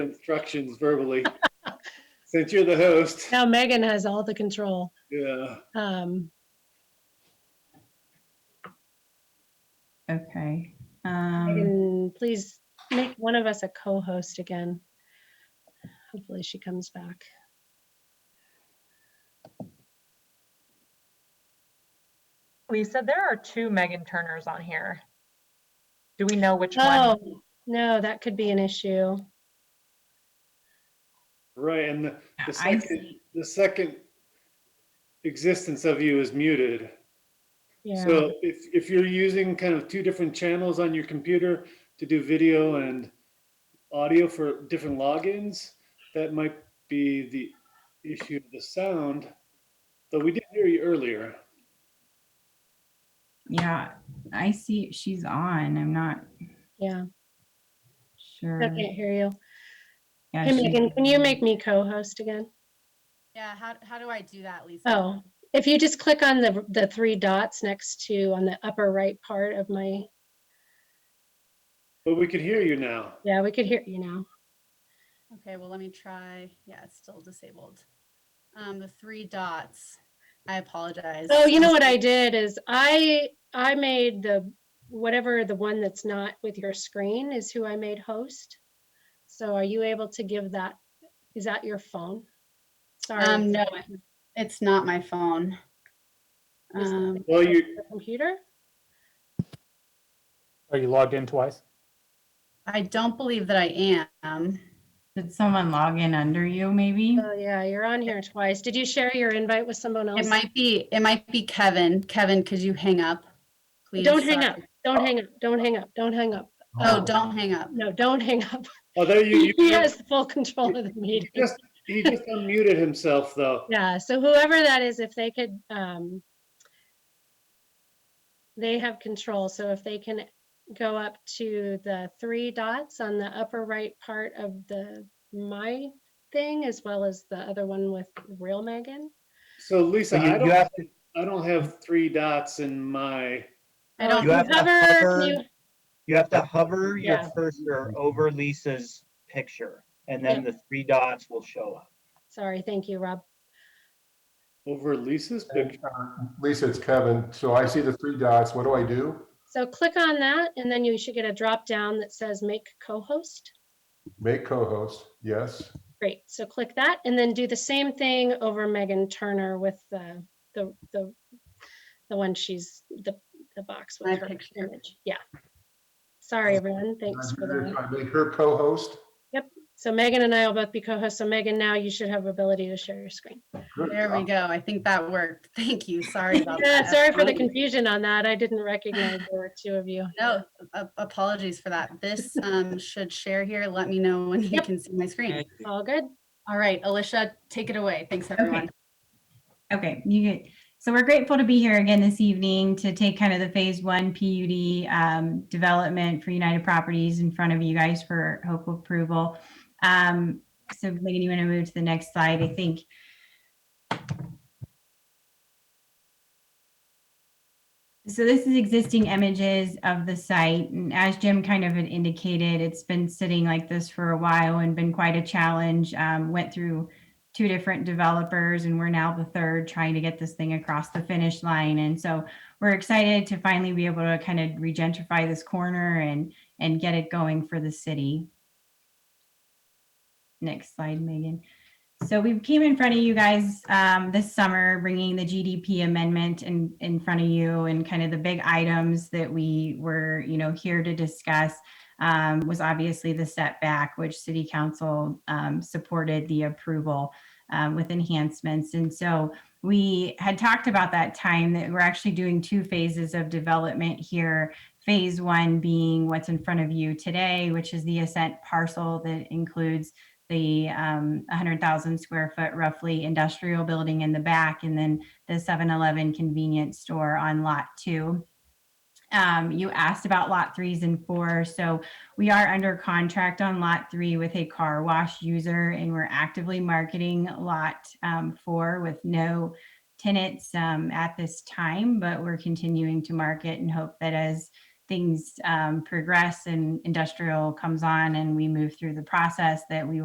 instructions verbally. Since you're the host, Now Megan has all the control. yeah. Um, Okay. Um, Megan, please make one of us a co-host again. Hopefully she comes back. Lisa, there are two Megan Turners on here. Do we know which one? Oh, no, that could be an issue. Right, and the, the I second, see. the second existence of you is muted. Yeah. So if, if you're using kind of two different channels on your computer to do video and audio for different logins, that might be the issue of the sound. Though we did hear you earlier. Yeah, I see she's on. I'm not Yeah. I sure. can't hear you. Yeah, Hey she's- Megan, can you make me co-host again? Yeah, how, how do I do that, Lisa? Oh, if you just click on the, the three dots next to, on the upper right part of my, But we could hear you now. yeah, we could hear you now. Oh. Okay, well, let me try. Yeah, it's still disabled. Um, the three dots. I apologize. Oh, you know what I did is I, I made the, whatever the one that's not with your screen is who I made host. So are you able to give that, is that your phone? Sorry. Um, is no, that it- it's not my phone. is that Um, Well, you, the Computer? Are you logged in twice? I don't believe that I am. Did someone log in under you maybe? Oh, yeah, you're on here twice. Did you share your invite with someone else? It might be, it might be Kevin. Kevin, could you hang up? Please. Don't hang up. Sorry. Don't hang up. Don't hang up. Don't hang up. Oh, don't hang up. No, don't hang up. although Oh, you, He you has full control of the he meeting. just, he just unmuted himself though. Yeah, so whoever that is, if they could, um, they have control, so if they can go up to the three dots on the upper right part of the my thing, as well as the other one with real Megan. So Lisa, So you- I you don't, have to- I don't have three dots in my, I Oh, don't if You have to hover, hover. you- You have to hover your Yeah. cursor over Lisa's picture, and then the three dots will show up. Sorry, thank you, Rob. over Lisa's picture. And, uh, Lisa, it's Kevin. So I see the three dots. What do I do? So click on that, and then you should get a drop down that says make co-host. Make co-host. Yes. Great, so click that and then do the same thing over Megan Turner with the, the, the, the one she's, the, the box My with her picture. image, yeah. Sorry, everyone, thanks for that. I make her co-host. So Megan and I will both be co-hosts, so Megan, now you should have ability to share your screen. Good. There we go. I think that worked. Thank you. Sorry about that. Oh, Yeah, sorry for the everyone. confusion on that, I didn't recognize there were two of you. No, a- apologies for that. This um, should share here. Let me know when you Yep. can see my screen. All good? All right, Alicia, take it away. Thanks, everyone. Okay, you get, so we're grateful to be here again this evening to take kind of the phase one PUD um, development for United Properties in front of you guys for hopeful approval. Um, So Megan, you want to move to the next slide, I think. So this is existing images of the site, and as Jim kind of had indicated, it's been sitting like this for a while and been quite a challenge. Um, Went through two different developers and we're now the third trying to get this thing across the finish line and so we're excited to finally be able to kind of regentrify this corner and and get it going for the city next slide megan so we came in front of you guys um, this summer bringing the gdp amendment in in front of you and kind of the big items that we were you know here to discuss um, was obviously the setback which city council um, supported the approval um, with enhancements. And so we had talked about that time that we're actually doing two phases of development here. Phase one being what's in front of you today, which is the ascent parcel that includes the um, 100,000 square foot roughly industrial building in the back, and then the 7 Eleven convenience store on lot two. Um, you asked about lot threes and four. So we are under contract on lot three with a car wash user and we're actively marketing lot um, four with no tenants um, at this time, but we're continuing to market and hope that as things um, progress and industrial comes on and we move through the process, that we